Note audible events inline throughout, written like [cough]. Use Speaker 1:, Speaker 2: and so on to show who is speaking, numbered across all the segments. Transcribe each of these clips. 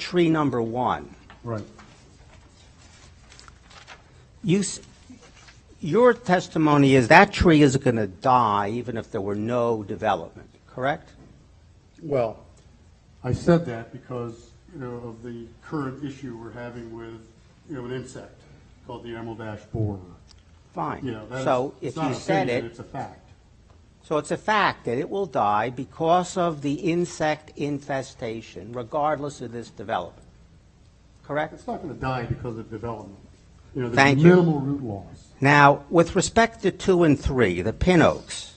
Speaker 1: tree number one,
Speaker 2: Right.
Speaker 1: you, s- your testimony is that tree is going to die even if there were no development, correct?
Speaker 2: Well, I said that because, you know, of the current issue we're having with, you know, an insect called the emerald ash borer.
Speaker 1: Fine.
Speaker 2: You know, that is-
Speaker 1: So
Speaker 2: it's
Speaker 1: if
Speaker 2: not
Speaker 1: you
Speaker 2: an
Speaker 1: said
Speaker 2: opinion,
Speaker 1: it,
Speaker 2: It's a fact.
Speaker 1: so it's a fact that it will die because of the insect infestation, regardless of this development, correct?
Speaker 2: It's not going to die because of development. You know, there's
Speaker 1: Thank you.
Speaker 2: minimal root loss.
Speaker 1: Now, with respect to two and three, the pin oaks,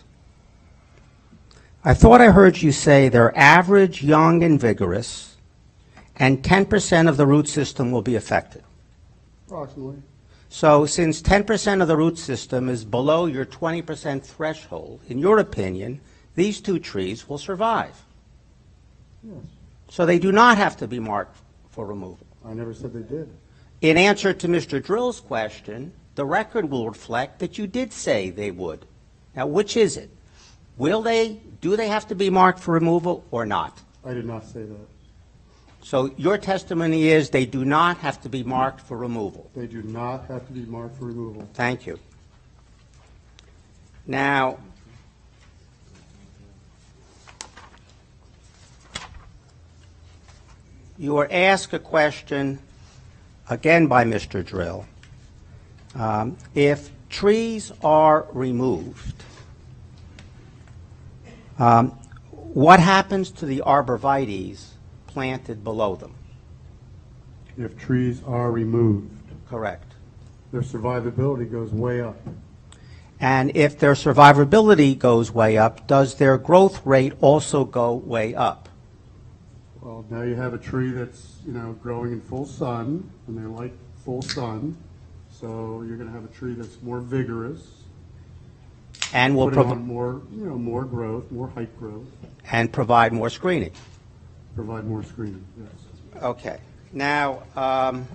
Speaker 1: I thought I heard you say they're average, young, and vigorous, and 10% of the root system will be affected.
Speaker 2: Approximately.
Speaker 1: So since 10% of the root system is below your 20% threshold, in your opinion, these two trees will survive.
Speaker 2: Yes.
Speaker 1: So they do not have to be marked for removal.
Speaker 2: I never said they did.
Speaker 1: In answer to Mr. Drill's question, the record will reflect that you did say they would. Now, which is it? Will they, do they have to be marked for removal or not?
Speaker 2: I did not say that.
Speaker 1: So your testimony is they do not have to be marked for removal.
Speaker 2: They do not have to be marked for removal.
Speaker 1: Thank you. Now, you were asked a question, again by Mr. Drill. Um, If trees are removed, um, what happens to the arborvitae's planted below them?
Speaker 2: If trees are removed,
Speaker 1: Correct.
Speaker 2: their survivability goes way up.
Speaker 1: And if their survivability goes way up, does their growth rate also go way up?
Speaker 2: Well, now you have a tree that's, you know, growing in full sun, and they like full sun, so you're gonna have a tree that's more vigorous,
Speaker 1: And will,
Speaker 2: putting
Speaker 1: prov-
Speaker 2: on more, you know, more growth, more height growth,
Speaker 1: and provide more screening?
Speaker 2: provide more screening, yes.
Speaker 1: Okay. Now, um,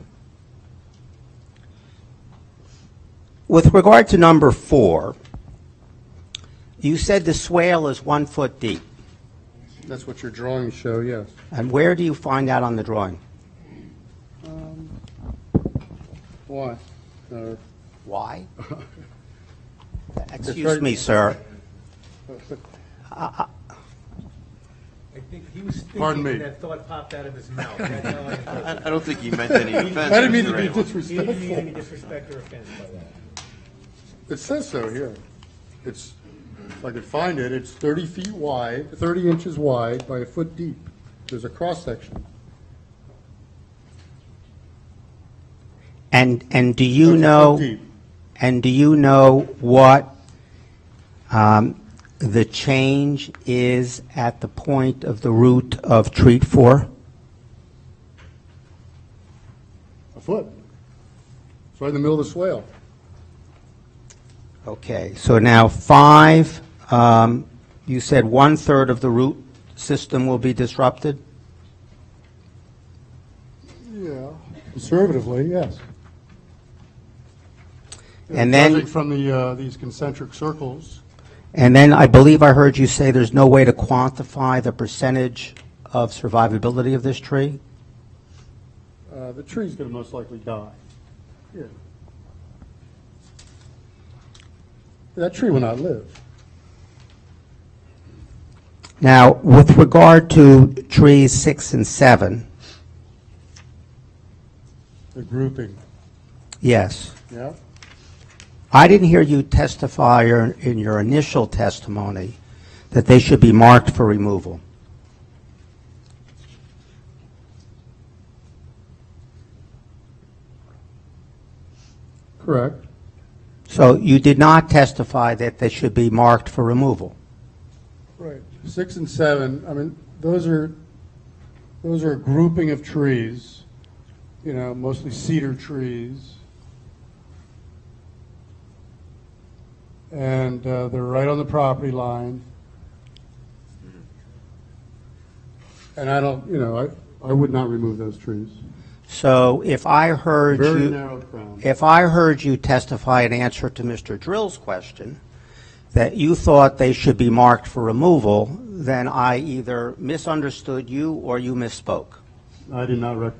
Speaker 1: with regard to number four, you said the swale is one foot deep.
Speaker 2: That's what your drawings show, yes.
Speaker 1: And where do you find that on the drawing?
Speaker 2: Why? Uh,
Speaker 1: [laughs] Why? Excuse
Speaker 2: right-
Speaker 1: me, sir.
Speaker 3: I think he was
Speaker 2: Pardon
Speaker 3: thinking,
Speaker 2: me.
Speaker 3: and that thought popped out of his mouth. That's how I-
Speaker 4: I I don't think he
Speaker 2: [laughs]
Speaker 4: meant any offense.
Speaker 2: I didn't mean to
Speaker 4: Mr.
Speaker 2: be
Speaker 4: Ramos.
Speaker 3: He didn't mean any
Speaker 2: disrespectful.
Speaker 3: disrespect or offense by that.
Speaker 2: It says so here. It's, if I could find it, it's thirty feet wide, thirty inches wide by a foot deep. There's a cross-section.
Speaker 1: And, and do
Speaker 2: It's
Speaker 1: you
Speaker 2: a foot
Speaker 1: know?
Speaker 2: deep.
Speaker 1: And do you know what um, the change is at the point of the root of treat four?
Speaker 2: A foot. It's right in the middle of the swale.
Speaker 1: Okay, so now five, um, you said one-third of the root system will be disrupted?
Speaker 2: Yeah. Conservatively, yes.
Speaker 1: And then-
Speaker 2: Judging from the, uh, these concentric circles,
Speaker 1: And then I believe I heard you say there's no way to quantify the percentage of survivability of this tree?
Speaker 2: uh, the tree's going to most likely die. Yeah. That tree will not live.
Speaker 1: Now, with regard to trees six and seven,
Speaker 2: The grouping,
Speaker 1: yes.
Speaker 2: yeah?
Speaker 1: I didn't hear you testify or in your initial testimony that they should be marked for removal.
Speaker 2: Correct.
Speaker 1: So you did not testify that they should be marked for removal.
Speaker 2: Right. Six and seven, I mean, those are, those are a grouping of trees, you know, mostly cedar trees. And uh, they're right on the property line. And I don't, you know, I, I would not remove those trees.
Speaker 1: So if I heard
Speaker 2: Very
Speaker 1: you,
Speaker 2: narrow crown.
Speaker 1: if I heard you testify in answer to Mr. Drill's question, that you thought they should be marked for removal, then I either misunderstood you or you misspoke.
Speaker 2: I did not recommend